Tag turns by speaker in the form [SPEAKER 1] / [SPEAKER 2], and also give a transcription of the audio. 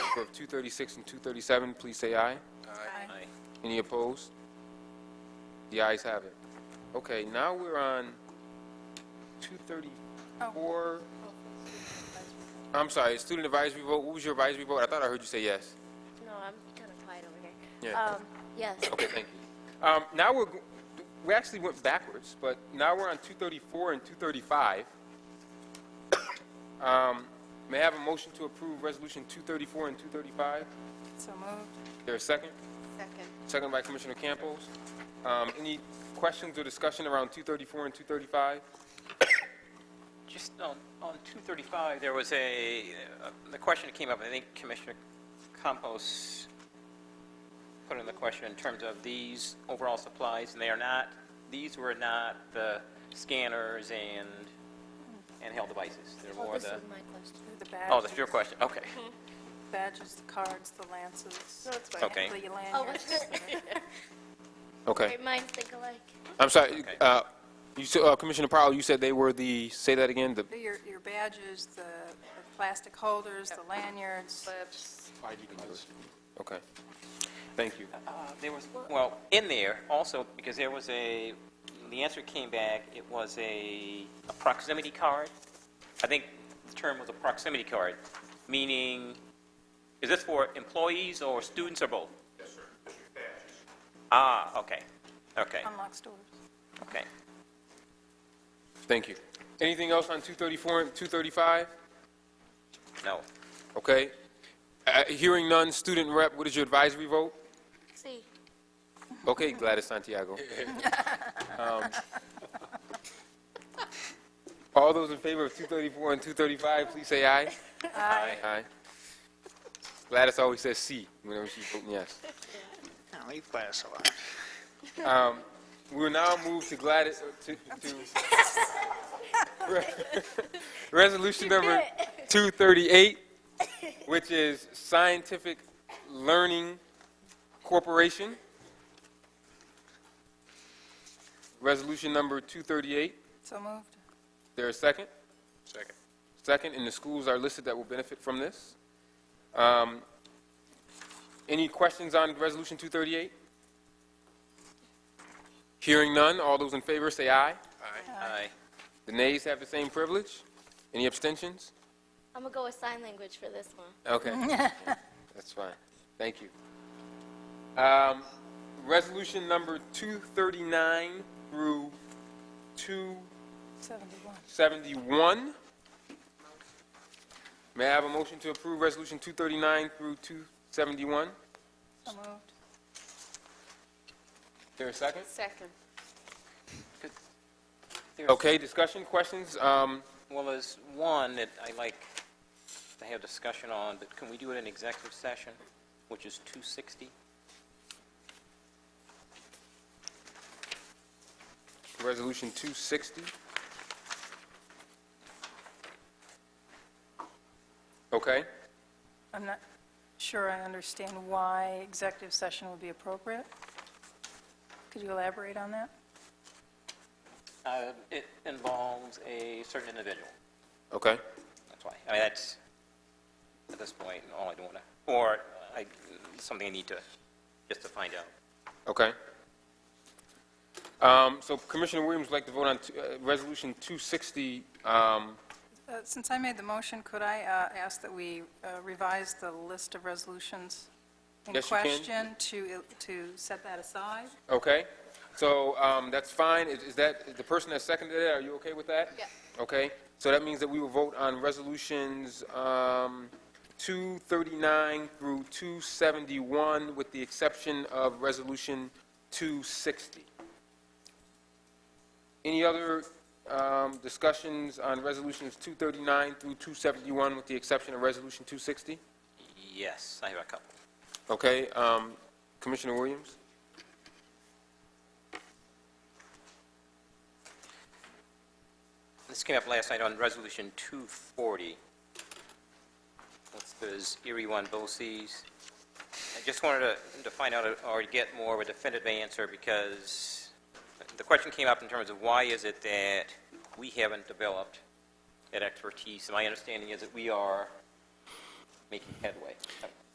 [SPEAKER 1] approval of 236 and 237, please say aye.
[SPEAKER 2] Aye.
[SPEAKER 1] Any opposed? The ayes have it. Okay, now we're on 234. I'm sorry, student advisory vote. What was your advisory vote? I thought I heard you say yes.
[SPEAKER 3] No, I'm kind of quiet over here.
[SPEAKER 1] Yeah.
[SPEAKER 3] Um, Yes,
[SPEAKER 1] Okay, thank you. Um, Now we're, go- we actually went backwards, but now we're on 234 and 235. Um, May I have a motion to approve Resolution 234 and 235?
[SPEAKER 2] So moved.
[SPEAKER 1] Is there a second?
[SPEAKER 2] Second.
[SPEAKER 1] Second by Commissioner Campos. Um, Any questions or discussion around 234 and 235?
[SPEAKER 4] Just on, on 235, there was a, uh, the question that came up, I think Commissioner Campos put in the question in terms of these overall supplies, and they are not, these were not the scanners and handheld devices. They're
[SPEAKER 3] well,
[SPEAKER 4] more
[SPEAKER 3] Oh, this
[SPEAKER 4] the,
[SPEAKER 3] is my question.
[SPEAKER 2] The badges.
[SPEAKER 4] oh, that's your question, okay.
[SPEAKER 2] Badges, the cards, the lances.
[SPEAKER 3] No, it's fine.
[SPEAKER 4] Okay.
[SPEAKER 2] The
[SPEAKER 3] Oh,
[SPEAKER 2] lanyards.
[SPEAKER 3] what's good?
[SPEAKER 1] Okay,
[SPEAKER 3] Great minds think alike.
[SPEAKER 1] I'm sorry,
[SPEAKER 4] Okay.
[SPEAKER 1] uh, you s- uh, Commissioner Powell, you said they were the, say that again, the,
[SPEAKER 2] Your, your badges, the the plastic holders, the lanyards.
[SPEAKER 1] okay. Thank you.
[SPEAKER 4] Uh, There was, well, in there also, because there was a, the answer came back, it was a a proximity card. I think the term was a proximity card, meaning, is this for employees or students or both? Yes, sir. Ah, okay, okay,
[SPEAKER 2] Unlock stores.
[SPEAKER 4] okay.
[SPEAKER 1] Thank you. Anything else on 234 and 235?
[SPEAKER 4] No,
[SPEAKER 1] Okay. Uh, Hearing none, student rep, what is your advisory vote?
[SPEAKER 3] See,
[SPEAKER 1] Okay, Gladys Santiago. Um, All those in favor of 234 and 235, please say aye. Aye. Aye. Gladys always says "C" whenever she's voting yes.
[SPEAKER 5] Now, leave Gladys alone.
[SPEAKER 1] We will now move to Gladys, uh, to, to Re- resolution number 238, which is Scientific Learning Corporation. Resolution number 238.
[SPEAKER 2] So moved.
[SPEAKER 1] There a second?
[SPEAKER 5] Second.
[SPEAKER 1] Second, and the schools are listed that will benefit from this. Um, Any questions on Resolution 238? Hearing none, all those in favor say aye.
[SPEAKER 4] aye,
[SPEAKER 1] The nays have the same privilege. Any abstentions?
[SPEAKER 3] I'm gonna go with sign language for this one.
[SPEAKER 1] Okay. That's fine. Thank you. Um, Resolution number 239 through
[SPEAKER 2] 71.
[SPEAKER 1] 271. May I have a motion to approve Resolution 239 through 271? Is
[SPEAKER 2] So moved.
[SPEAKER 1] there a second?
[SPEAKER 2] Second.
[SPEAKER 4] There's-
[SPEAKER 1] Okay, discussion, questions? Um,
[SPEAKER 4] Well, there's one that I like to have discussion on, but can we do it in executive session, which is 260?
[SPEAKER 1] Resolution 260. Okay.
[SPEAKER 2] I'm not sure I understand why executive session would be appropriate. Could you elaborate on that?
[SPEAKER 4] Uh, It involves a certain individual,
[SPEAKER 1] Okay.
[SPEAKER 4] that's why. I mean, that's, at this point, all I don't want to, or I, something I need to, just to find out.
[SPEAKER 1] Okay. Um, So Commissioner Williams would like to vote on t- uh, Resolution 260. um,
[SPEAKER 2] Uh, Since I made the motion, could I uh, ask that we uh, revise the list of resolutions in
[SPEAKER 1] Yes, you can.
[SPEAKER 2] question to, to set that aside?
[SPEAKER 1] Okay, so um, that's fine. Is is that, is the person that seconded it, are you okay with that?
[SPEAKER 3] Yeah.
[SPEAKER 1] Okay, so that means that we will vote on Resolutions um, 239 through 271, with the exception of Resolution 260. Any other um, discussions on Resolutions 239 through 271, with the exception of Resolution 260?
[SPEAKER 4] Yes, I have a couple.
[SPEAKER 1] Okay, um, Commissioner Williams?
[SPEAKER 4] This came up last night on Resolution 240. That's those Erie One BOCES. I just wanted to- to find out or get more of a definitive answer because the question came up in terms of why is it that we haven't developed that expertise? And my understanding is that we are making headway.